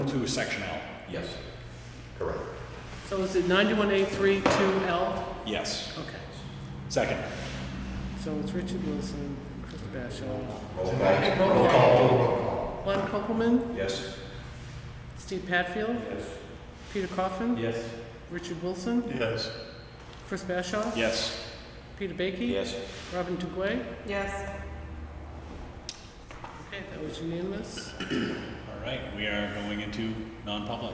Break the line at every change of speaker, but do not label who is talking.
to section L.
Yes, correct.
So is it 91A32 L?
Yes.
Okay.
Second.
So it's Richard Wilson, Chris Bashaw,
Roll back. Roll call.
Lon Copeland,
Yes.
Steve Patfield,
Yes.
Peter Coffin,
Yes.
Richard Wilson,
Yes.
Chris Bashaw,
Yes.
Peter Baiki,
Yes.
Robin Dugway.
Yes.
Okay, that was unanimous.
All right, we are going into non-public.